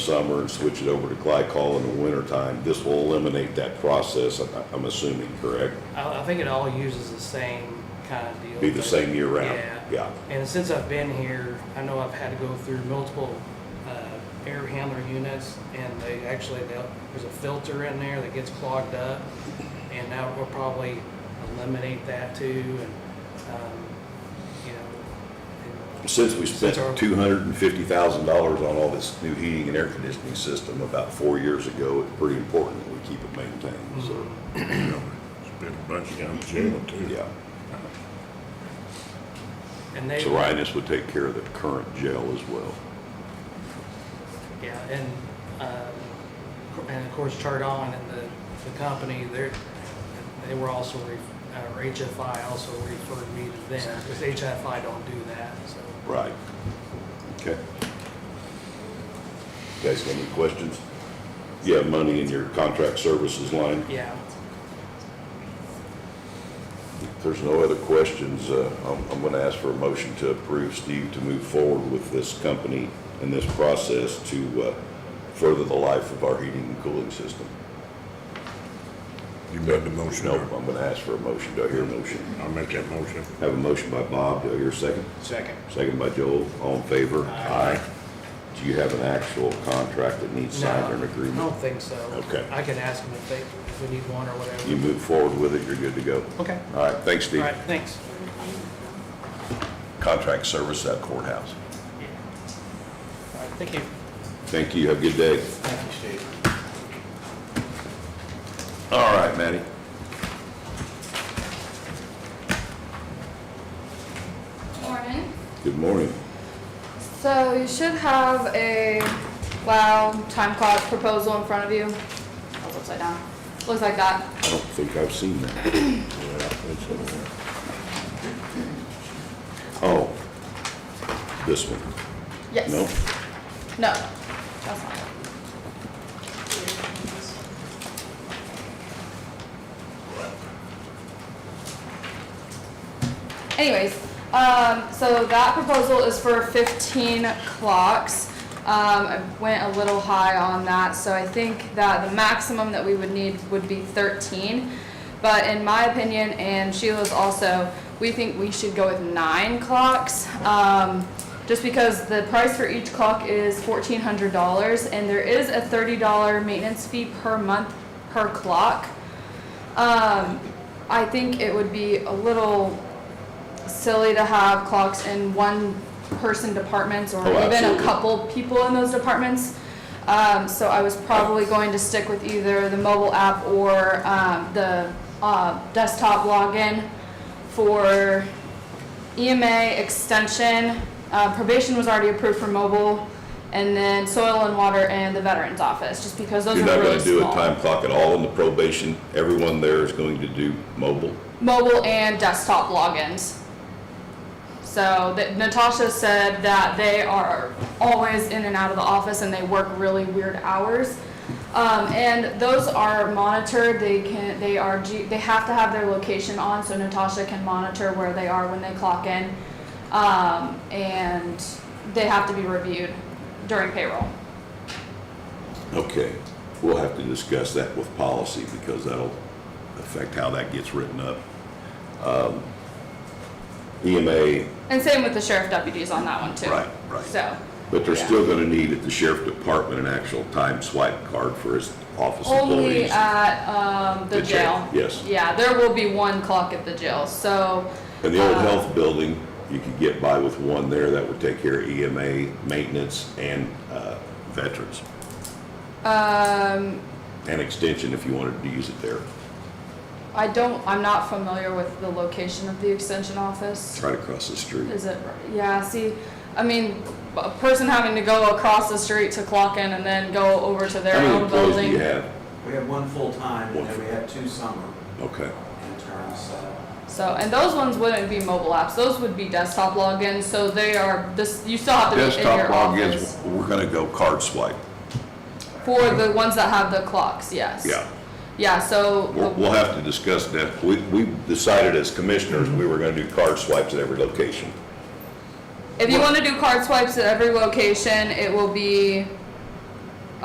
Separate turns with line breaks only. summer and switch it over to glycol in the wintertime, this will eliminate that process, I- I'm assuming, correct?
I, I think it all uses the same kind of deal.
Be the same year round?
Yeah.
Yeah.
And since I've been here, I know I've had to go through multiple uh, air handler units, and they actually, they'll- there's a filter in there that gets clogged up, and now we'll probably eliminate that too, and, um, you know. and-
Since we spent
Since our-
two hundred and fifty thousand dollars on all this new heating and air conditioning system about four years ago, it's pretty important that we keep it maintained, so,
Spent a bunch of time in jail
Mm-hmm.
too.
yeah.
And they,
So Ryan, this would take care of the current jail as well.
yeah, and, um, and of course, Chardon and the, the company, they're, they were also, re- uh, or HFI also referred me to them, because HFI don't do that, so.
Right. Okay. Guys, got any questions? You have money in your contract services line?
Yeah,
If there's no other questions, uh, I'm I'm going to ask for a motion to approve Steve to move forward with this company and this process to uh, further the life of our heating and cooling system.
You made the motion.
No, I'm going to ask for a motion. Do I hear a motion?
I'll make that motion.
Have a motion by Bob. Do I hear a second?
Second.
Second by Joel. All in favor?
Aye.
Do you have an actual contract that needs signed or an
no, I
agreement?
don't think so.
Okay.
I can ask them if they, if we need one or whatever.
You move forward with it, you're good to go.
Okay,
All right, thanks,
all
Steve.
right, thanks.
Contract service at courthouse.
Yeah. All right, thank you.
Thank you. Have a good day.
Thank you, Steve.
All right, Matty.
Morning.
Good morning.
So you should have a WOW time clock proposal in front of you. Oh, it's upside down. Looks like that.
I don't think I've seen that. Oh, this one,
Yes.
no?
No, that's not it. Anyways, um, so that proposal is for fifteen clocks. Um, I went a little high on that, so I think that the maximum that we would need would be thirteen. But in my opinion, and Sheila's also, we think we should go with nine clocks. Um, just because the price for each clock is fourteen hundred dollars, and there is a thirty dollar maintenance fee per month per clock. Um, I think it would be a little silly to have clocks in one person departments or
Oh,
even a
absolutely.
couple people in those departments. Um, so I was probably going to stick with either the mobile app or, um, the, uh, desktop login for EMA extension, uh, probation was already approved for mobile, and then soil and water and the veterans office, just because those
You're
are
not
really
gonna do a
small.
time clock at all in the probation? Everyone there is going to do mobile?
Mobile and desktop logins. So that Natasha said that they are always in and out of the office and they work really weird hours. Um, and those are monitored, they can, they are, ge- they have to have their location on, so Natasha can monitor where they are when they clock in. Um, and they have to be reviewed during payroll.
Okay, we'll have to discuss that with policy because that'll affect how that gets written up. Um, E EMA,
And same with the sheriff deputies on that one too.
Right, right.
So.
but they're
Yeah.
still gonna need at the sheriff department an actual time swipe card for his office
Only uh,
employees.
at, um, the
The jail,
jail.
yes.
Yeah, there will be one clock at the jail, so,
In the old
uh,
health building, you could get by with one there that would take care of EMA, maintenance, and uh, veterans,
um,
and extension if you wanted to use it there.
I don't, I'm not familiar with the location of the extension office.
It's right across the street.
Is it, yeah, see, I mean, a person having to go across the street to clock in and then go over to their
How many
own
employees do you
building.
have?
We have one full-time,
One
and then we have two summer
Okay,
interns, so.
So, and those ones wouldn't be mobile apps, those would be desktop logins, so they are, this, you still have to be in
desktop
your
logins,
office.
we're gonna go card swipe,
For the ones that have the clocks, yes.
yeah.
Yeah, so.
We'll,
the-
we'll have to discuss that. We, we decided as commissioners, we were gonna do card swipes at every location.
If you want to do card swipes at every location, it will be